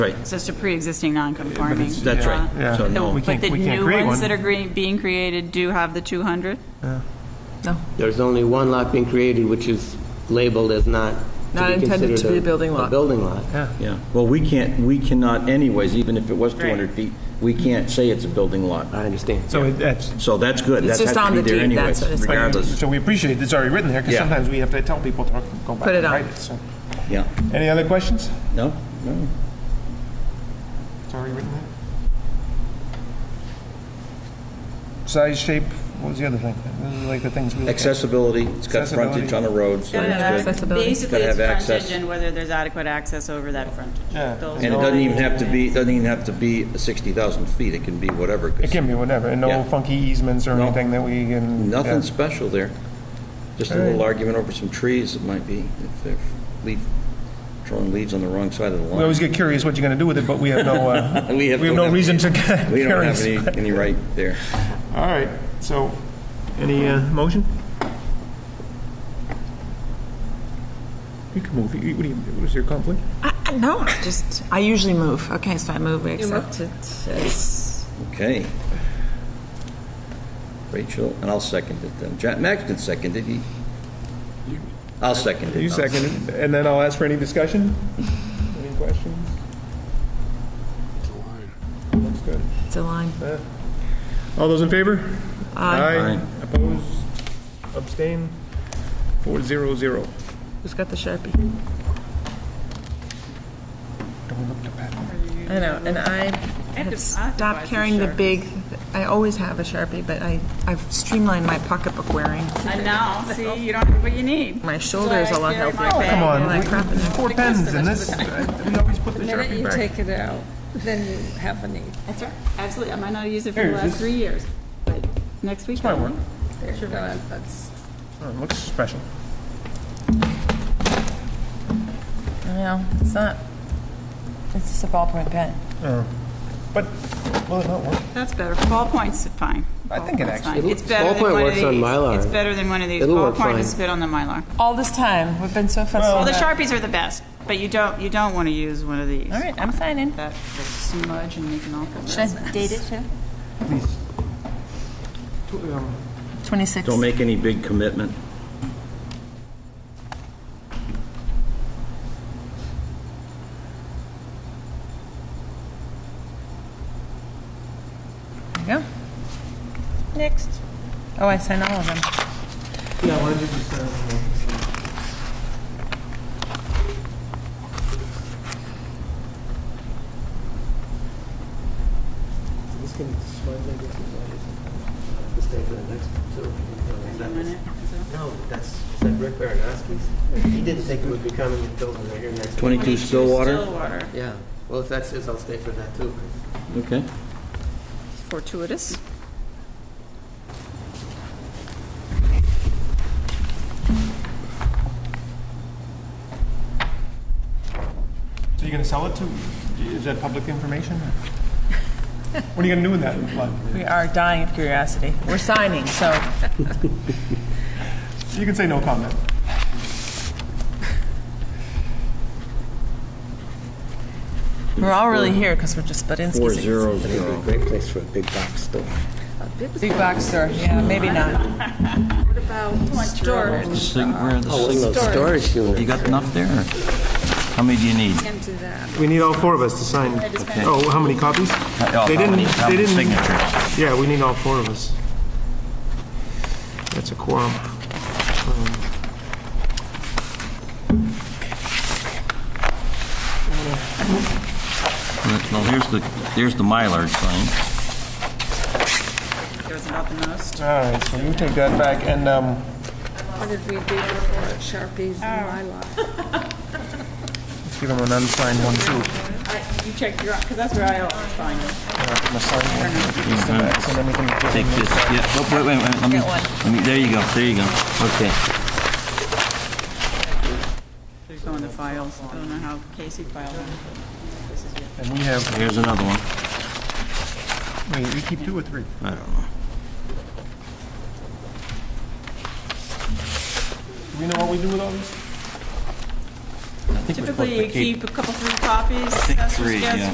Right, It's just a pre-existing non-conforming. that's right. uh, So Yeah. no, We But can't- the can't new create ones one. that are green- being created do have the 200? There's only one lot being created, which is labeled as not Not to be intended considered to be a building lot. building lot. yeah. Well, we can't, we cannot anyways, even if it was 200 feet, we can't say it's a building lot. I understand. So it- that's, So that's good. It's That just has to on be the there deed, anyways, that's what it's- Regardless, so we appreciate it's already written there, because Yeah. sometimes we have to tell people to go back Put it and on. write it, so. yeah. Any other questions? No, no. It's already written there. Size, shape, what was the other thing? Those are like the things we look at. Accessibility, it's got frontage Accessibility. on the road, so that's good. accessibility. Basically, Gotta it's have frontage access. and whether there's adequate access over that frontage. Yeah. Those And it are doesn't the even have to be, things. doesn't even have to be 60,000 feet, it can be whatever. 'cause It can be whatever, and no Yeah. funky easements or No. anything that we can. yeah. Nothing special there. Just a little argument over some trees, it might be, if they're leaf, throwing leaves on the wrong side of the line. We always get curious what you're going to do with it, but we have no, uh, We we have have no- no reason to get We don't have curious. any, any right there. All right, so, any uh, motion? You can move, You- what do you, was your conflict? I- I- No, I just, I usually move. Okay, so I move, we accept it as, Okay. Rachel, and I'll second it then. Jack Maxton seconded, he, I'll second it. You I'll- second, it, and then I'll ask for any discussion? Any questions? Looks good. it's a line. All those in favor? Aye. Aye. Opposed, abstain, four zero zero. Who's got the Sharpie? I know, and I to- have I have to buy stopped some carrying the Sharpies. big, I always have a Sharpie, but I, I've streamlined my pocketbook wearing. And now, see, you don't have what you need. My shoulder's a lot Sorry, healthier. carry my Oh, Come on, Like we- crap in there. four pens in this, we always put the The minute Sharpie you back. take it out, then you have a need. That's right. Absolutely. I might not use it for Here, the is last this- three years, but next week I will. There you go. That's Oh, it Looks special. No, it's not. It's just a ballpoint pen. But, well, not work. That's better. Ballpoint's fine. I think it Ballpoint's actually- fine. It'll- It's better than ballpoint one of works on these. Mylar. It's better than one of these. It'll work Ballpoint fine. is spit on the Mylar. All this time, we've been so fussy. Well, the about- Sharpies are the best, but you don't, you don't want to use one of these. All right, I'm signing. That will smudge and make an awful mess. Date it too? Please. 26. Don't make any big commitment. There you go. Next. Oh, I sign all of them. Yeah, why don't you just, uh, No, that's, is that Rick Baranowski's? He didn't think it would be coming until we were here next. 22 Stillwater, Stillwater. Yeah, well, if that's his, I'll stay for that too. okay. Fortuitous. So you're going to sell it to, is that public information? What are you going to do with that lot? We are dying of curiosity. We're signing, so You can say no comment. we're all really here because we're just Budinski's. Four zero zero. Great place for a big box store. a big Big box store. Yeah, maybe not. What about storage? Storage unit. You got enough there? or How many do you need? Can't do that. We need all four of us to sign. Oh, how many copies? They didn't, they didn't. Signatures. Yeah, we need all four of us. That's a quorum. Um, Well, here's the, there's the Mylar sign. Goes about the most. All right, so you take that back and, um, What did we do for Sharpies and my lot? let's give them an unsigned one too. I- You check your, because that's where I always find it. I'm gonna sign one. Just the back, so then we can give them Take the- this, yeah, oh, wait, wait, wait, let me, let me, there you go, there you go, okay. They go in the files. I don't know how Casey filed them. This is your- And we have, Here's another one. wait, we keep two or three? I don't know. Do we know what we do with all these? I think it was supposed Typically, to you keep- keep a couple, three copies. think That's just three, guess. yeah.